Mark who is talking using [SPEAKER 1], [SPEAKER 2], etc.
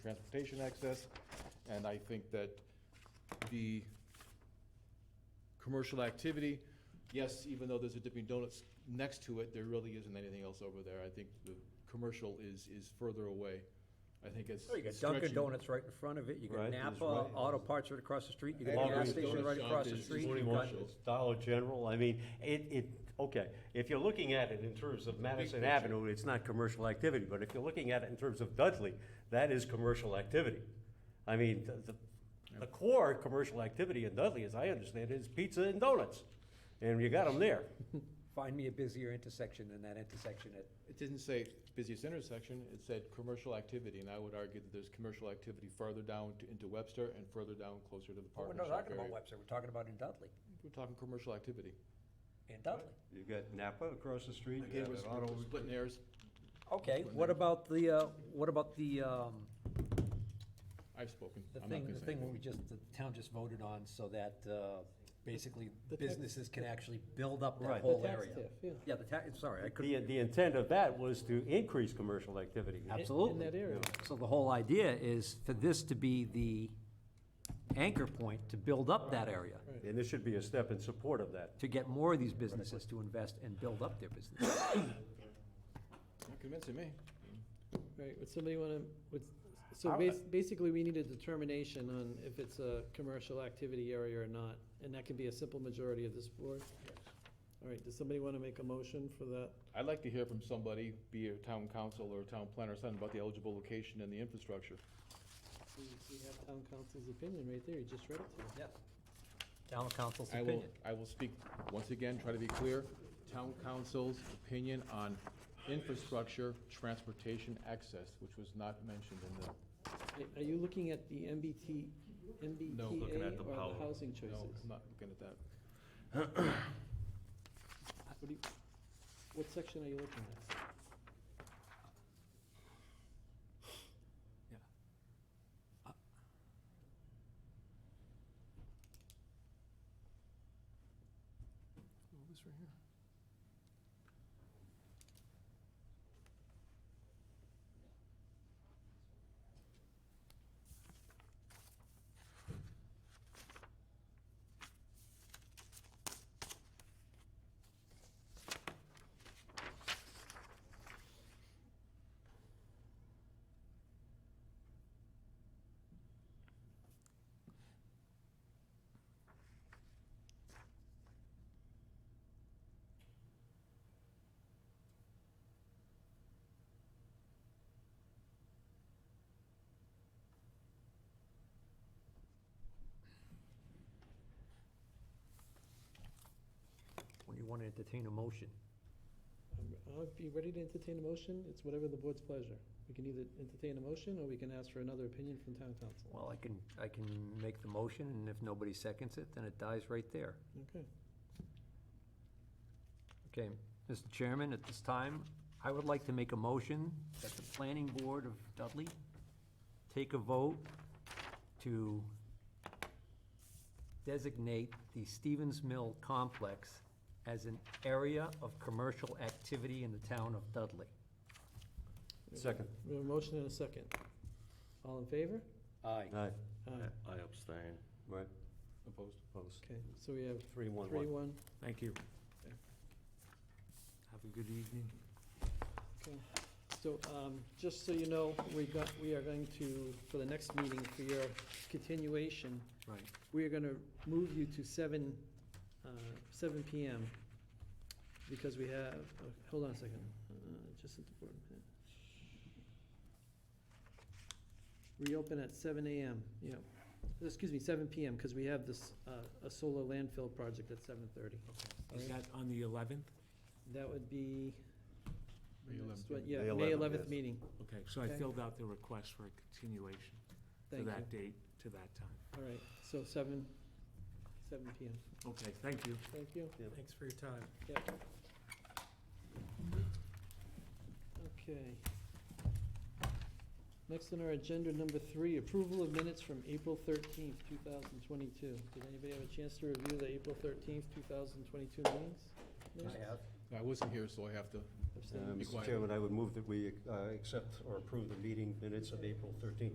[SPEAKER 1] transportation access, and I think that the commercial activity, yes, even though there's a Dipping Donuts next to it, there really isn't anything else over there. I think the commercial is, is further away. I think it's.
[SPEAKER 2] Well, You got
[SPEAKER 1] stretching.
[SPEAKER 2] Dunkin' Donuts right in front of it, you got
[SPEAKER 3] Right.
[SPEAKER 2] Napa,
[SPEAKER 1] Right.
[SPEAKER 2] Auto Parts right across the street, you got a
[SPEAKER 3] Walgreens
[SPEAKER 2] gas station
[SPEAKER 1] Donuts
[SPEAKER 2] right
[SPEAKER 1] shop
[SPEAKER 2] across the
[SPEAKER 1] is- is
[SPEAKER 2] street.
[SPEAKER 1] pretty
[SPEAKER 2] you
[SPEAKER 1] much
[SPEAKER 2] got-
[SPEAKER 1] it.
[SPEAKER 3] Dollar General, I mean, it, it, okay, if you're looking at it in terms of Madison
[SPEAKER 1] picture.
[SPEAKER 3] Avenue, it's not commercial activity, but if you're looking at it in terms of Dudley, that is commercial activity. I mean, the- the, the core commercial activity in Dudley, as I understand it, is pizza and donuts, and you got them there.
[SPEAKER 2] Find me a busier intersection than that intersection at,
[SPEAKER 1] It didn't say busiest intersection, it said commercial activity, and I would argue that there's commercial activity farther down to- into Webster and further down closer to the
[SPEAKER 2] we're
[SPEAKER 1] Park and
[SPEAKER 2] Oh, not
[SPEAKER 1] Shop
[SPEAKER 2] talking about
[SPEAKER 1] area.
[SPEAKER 2] Webster, we're talking about in Dudley,
[SPEAKER 1] We're talking commercial activity.
[SPEAKER 2] in Dudley.
[SPEAKER 3] You've got Napa across the street,
[SPEAKER 1] Again, we're we're splitting hairs.
[SPEAKER 2] Okay, what about the, uh, what about the, um,
[SPEAKER 1] I've spoken.
[SPEAKER 2] the
[SPEAKER 1] I'm not
[SPEAKER 2] thing,
[SPEAKER 1] gonna
[SPEAKER 2] the
[SPEAKER 1] say
[SPEAKER 2] thing where
[SPEAKER 1] anything.
[SPEAKER 2] we just, the town just voted on so that, uh, basically
[SPEAKER 1] The tax-
[SPEAKER 2] businesses can actually build up that
[SPEAKER 3] Right.
[SPEAKER 2] whole
[SPEAKER 4] The tax
[SPEAKER 2] area.
[SPEAKER 4] tip, yeah.
[SPEAKER 2] the tax, sorry, I couldn't.
[SPEAKER 3] The, the intent of that was to increase commercial activity.
[SPEAKER 2] Absolutely.
[SPEAKER 4] that area.
[SPEAKER 2] So the whole idea is for this to be the anchor point to build up that area,
[SPEAKER 3] And this should be a step in support of that.
[SPEAKER 2] to get more of these businesses to invest and build up their business.
[SPEAKER 1] Not convincing me.
[SPEAKER 4] Right, would somebody want to, would, so bas- basically, we need a determination on if it's a commercial activity area or not, and that can be a simple majority of this board? All right, does somebody want to make a motion for that?
[SPEAKER 1] I'd like to hear from somebody, be it a town council or a town planner, something about the eligible location and the infrastructure.
[SPEAKER 4] We we have town council's opinion right there, you just read it to us.
[SPEAKER 2] Yeah. Town council's
[SPEAKER 1] I will,
[SPEAKER 2] opinion.
[SPEAKER 1] I will speak, once again, try to be clear, town council's opinion on infrastructure, transportation access, which was not mentioned in the,
[SPEAKER 4] Are- Are you looking at the MBT, MBTA or the housing
[SPEAKER 1] no,
[SPEAKER 4] choices?
[SPEAKER 1] I'm not looking at that.
[SPEAKER 4] What do you- What section are you looking at? this right here.
[SPEAKER 2] When you want to entertain a motion.
[SPEAKER 4] Um, I'll be ready to entertain a motion, it's whatever the board's pleasure. We can either entertain a motion, or we can ask for another opinion from town council.
[SPEAKER 2] Well, I can, I can make the motion, and if nobody seconds it, then it dies right there.
[SPEAKER 4] Okay.
[SPEAKER 2] Okay, Mr. Chairman, at this time, I would like to make a motion that the planning board of Dudley take a vote to designate the Stevens Mill complex as an area of commercial activity in the town of Dudley.
[SPEAKER 3] Second.
[SPEAKER 4] We have a motion and a second. All in favor?
[SPEAKER 2] Aye.
[SPEAKER 3] Aye.
[SPEAKER 4] Aye.
[SPEAKER 5] I abstain.
[SPEAKER 3] Right,
[SPEAKER 1] Opposed?
[SPEAKER 3] opposed.
[SPEAKER 4] Okay, so we have
[SPEAKER 3] Three, one,
[SPEAKER 4] three,
[SPEAKER 3] one.
[SPEAKER 4] one.
[SPEAKER 2] Thank you. Have a good evening.
[SPEAKER 4] Okay. So, um, just so you know, we got, we are going to, for the next meeting, for your continuation,
[SPEAKER 2] Right.
[SPEAKER 4] we are gonna move you to seven, uh, seven PM, because we have, oh, hold on a second, uh, just at the board. minute. Reopen at seven AM, yeah, excuse me, seven PM, because we have this, uh, a solar landfill project at seven thirty.
[SPEAKER 6] Is that on the 11th?
[SPEAKER 4] That would be,
[SPEAKER 1] May
[SPEAKER 4] next
[SPEAKER 1] 11th,
[SPEAKER 4] one, yeah,
[SPEAKER 3] May
[SPEAKER 4] May
[SPEAKER 3] 11th,
[SPEAKER 4] eleventh
[SPEAKER 3] yes.
[SPEAKER 4] meeting,
[SPEAKER 6] Okay, so I
[SPEAKER 4] Okay.
[SPEAKER 6] filled out the request for a continuation to
[SPEAKER 4] thank you,
[SPEAKER 6] that date, to that time.
[SPEAKER 4] all right, so seven, seven PM,
[SPEAKER 6] Okay, thank you.
[SPEAKER 4] thank you.
[SPEAKER 6] Thanks for your time.
[SPEAKER 4] Yep. Okay. Next on our agenda, number three, approval of minutes from April thirteenth, two thousand twenty-two. Did anybody have a chance to review the April thirteenth, two thousand twenty-two meetings?
[SPEAKER 2] I have.
[SPEAKER 1] I wasn't here, so I have to
[SPEAKER 4] Abstain?
[SPEAKER 3] Uh,
[SPEAKER 1] Be
[SPEAKER 3] Mr.
[SPEAKER 1] quiet.
[SPEAKER 3] Chairman, I would move that we uh, accept or approve the meeting minutes of April 13th.